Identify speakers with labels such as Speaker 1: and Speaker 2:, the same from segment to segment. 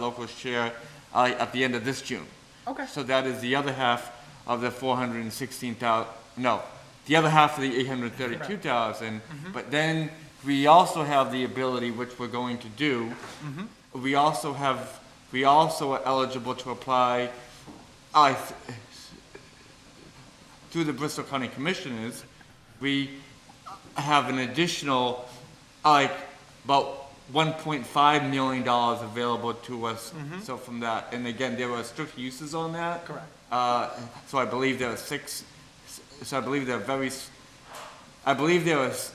Speaker 1: locals chair uh, at the end of this June.
Speaker 2: Okay.
Speaker 1: So that is the other half of the four hundred and sixteen thousand. no, the other half of the eight hundred and thirty-two thousand. But then we also have the ability, which we're going to do, we also have, we also are eligible to apply, I, th- through the Bristol County Commissioners, we have an additional, like, about one point five million dollars available to us, so from that, and again, there were strict uses on that.
Speaker 2: Correct.
Speaker 1: Uh, so I believe there are six, so I believe there are very, s- I believe there was,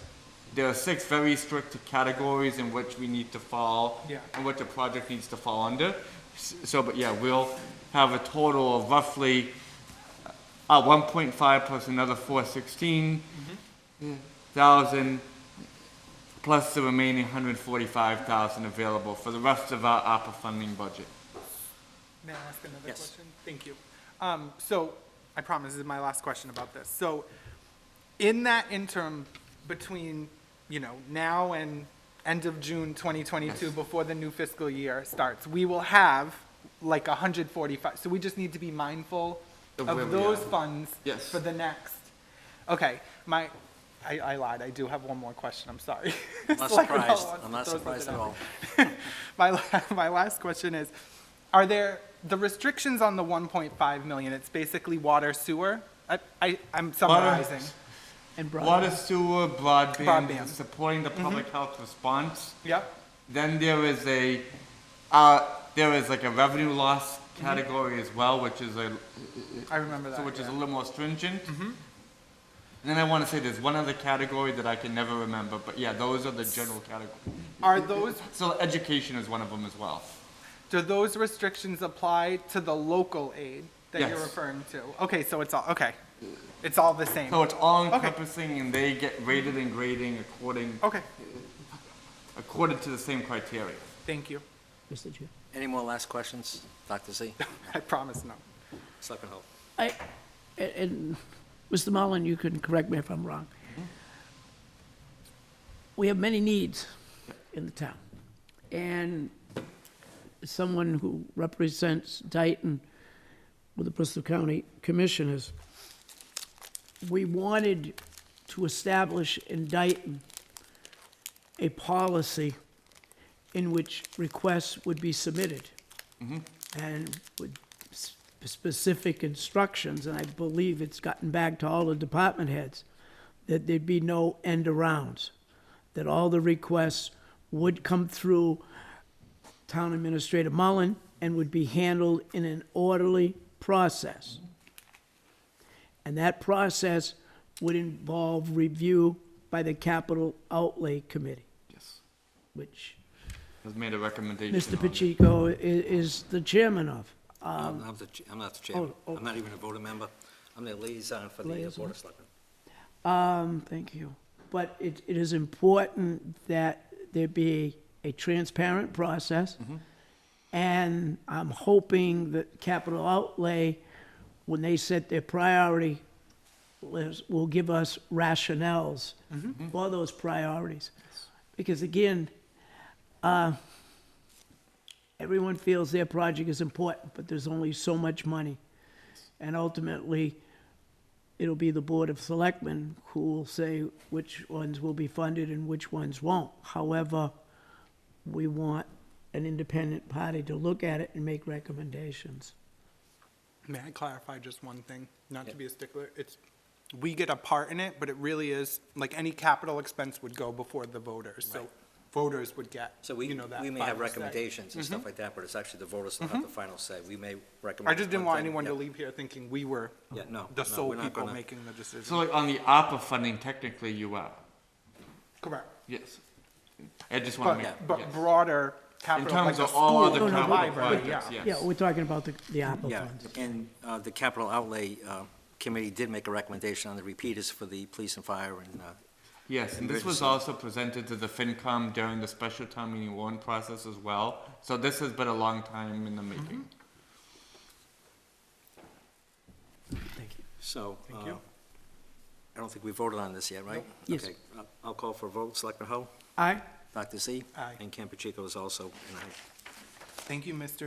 Speaker 1: there are six very strict categories in which we need to fall.
Speaker 2: Yeah.
Speaker 1: And what the project needs to fall under, S- so, but yeah, we'll have a total of roughly, uh, one point five plus another four sixteen
Speaker 2: Mm-hmm.
Speaker 1: thousand, plus the remaining hundred forty-five thousand available for the rest of our ARPA funding budget.
Speaker 2: May I ask another
Speaker 1: Yes.
Speaker 2: question? Thank you. Um, so, I promise this is my last question about this. So, in that interim between, you know, now and end of June 2022, before the new fiscal year starts, we will have like 145, so we just need to be mindful
Speaker 1: Of where
Speaker 2: of
Speaker 1: we
Speaker 2: those
Speaker 1: are.
Speaker 2: funds
Speaker 1: Yes.
Speaker 2: for the next. Okay, my, I, I lied, I do have one more question, I'm sorry.
Speaker 3: I'm not
Speaker 2: Selectman Hull
Speaker 3: surprised,
Speaker 2: wants to
Speaker 3: I'm not
Speaker 2: throw something
Speaker 3: surprised at
Speaker 2: out.
Speaker 3: all.
Speaker 2: my, la- my last question is, are there, the restrictions on the 1.5 million, it's basically water, sewer? I, I, I'm summarizing.
Speaker 4: And
Speaker 1: Water, sewer, broadband,
Speaker 2: Broadband. Mm-hmm.
Speaker 1: supporting the public health response.
Speaker 2: Yep,
Speaker 1: Then there is a, uh, there is like a revenue loss
Speaker 2: Mm-hmm.
Speaker 1: category as well, which is a,
Speaker 2: I remember
Speaker 1: so
Speaker 2: that,
Speaker 1: which is a
Speaker 2: yeah.
Speaker 1: little more stringent.
Speaker 2: Mm-hmm.
Speaker 1: And then I want to say there's one other category that I can never remember, but yeah, those are the general categories.
Speaker 2: Are those,
Speaker 1: So education is one of them as well.
Speaker 2: do those restrictions apply to the local aid that you're
Speaker 1: Yes.
Speaker 2: referring to? Okay, so it's all, okay, it's all the same.
Speaker 1: So it's all encompassing and they get rated and grading according,
Speaker 2: Okay,
Speaker 1: according to the same criteria.
Speaker 2: thank you,
Speaker 4: Mr. Chair.
Speaker 3: Any more last questions, Dr. Z?
Speaker 2: I promise no.
Speaker 3: Selectman Hull?
Speaker 4: I, and- and, Mr. Mullin, you can correct me if I'm wrong.
Speaker 3: Mm-hmm.
Speaker 4: We have many needs in the town. And someone who represents Dayton with the Bristol County Commissioners, we wanted to establish in Dayton a policy in which requests would be submitted. and with s- specific instructions, and I believe it's gotten back to all the department heads, that there'd be no end arounds, that all the requests would come through Town Administrator Mullen and would be handled in an orderly process. And that process would involve review by the Capital Outlay Committee,
Speaker 1: Yes.
Speaker 4: which
Speaker 1: Has made a recommendation.
Speaker 4: Mr.
Speaker 1: on it.
Speaker 4: Pacheco i- is the chairman of.
Speaker 2: Um,
Speaker 3: I'm not the ch- I'm not the chairman,
Speaker 4: oh, oh.
Speaker 3: I'm not even a voting member, I'm the liaison for the uh, Board of Selectmen.
Speaker 4: Um, thank you. But it, it is important that there be a transparent process. And I'm hoping that capital outlay, when they set their priority list, will give us rationales for those priorities. Because again, uh, everyone feels their project is important, but there's only so much money. And ultimately, it'll be the Board of Selectmen who will say which ones will be funded and which ones won't. However, we want an independent party to look at it and make recommendations.
Speaker 2: May I clarify just one thing? Not to be a stickler, it's, we get a part in it, but it really is, like, any capital expense would go before the voters, so voters would get,
Speaker 3: So
Speaker 2: you
Speaker 3: we,
Speaker 2: know, that.
Speaker 3: we may have
Speaker 2: final say. Mm-hmm.
Speaker 3: recommendations and stuff like that, but it's actually the voters that have the final say. We may recommend.
Speaker 2: I just didn't
Speaker 3: one
Speaker 2: want
Speaker 3: thing.
Speaker 2: anyone to
Speaker 3: Yeah.
Speaker 2: leave here thinking we were
Speaker 3: Yeah, no,
Speaker 2: the
Speaker 3: no,
Speaker 2: sole
Speaker 3: we're not
Speaker 2: people
Speaker 3: gonna-
Speaker 2: making the decision.
Speaker 1: So like on the ARPA funding, technically you are,
Speaker 2: Correct.
Speaker 1: yes. I just want to make.
Speaker 2: But, but
Speaker 1: yes.
Speaker 2: broader capital,
Speaker 1: terms
Speaker 2: like a
Speaker 1: of all
Speaker 2: school,
Speaker 1: other
Speaker 2: the
Speaker 1: capital
Speaker 2: library, yeah.
Speaker 1: projects, yeah.
Speaker 4: Yeah, we're talking about the, the ARPA
Speaker 3: Yeah,
Speaker 4: funds.
Speaker 3: and uh, the Capital Outlay uh, Committee did make a recommendation on the repeaters for the police and fire and, uh,
Speaker 1: Yes, and this was
Speaker 3: Emergency.
Speaker 1: also presented to the FinCom during the special town meeting warrant process as well. So this has been a long time in the making.
Speaker 3: so.
Speaker 2: Thank you.
Speaker 3: uh, I don't think we voted on this yet, right?
Speaker 4: Yes.
Speaker 3: Okay, I'll- I'll call for a vote. Selectman Hull?
Speaker 4: Aye?
Speaker 3: Dr. Z?
Speaker 2: Aye.
Speaker 3: And Campuchico is also an aye.
Speaker 2: Thank you, Mr.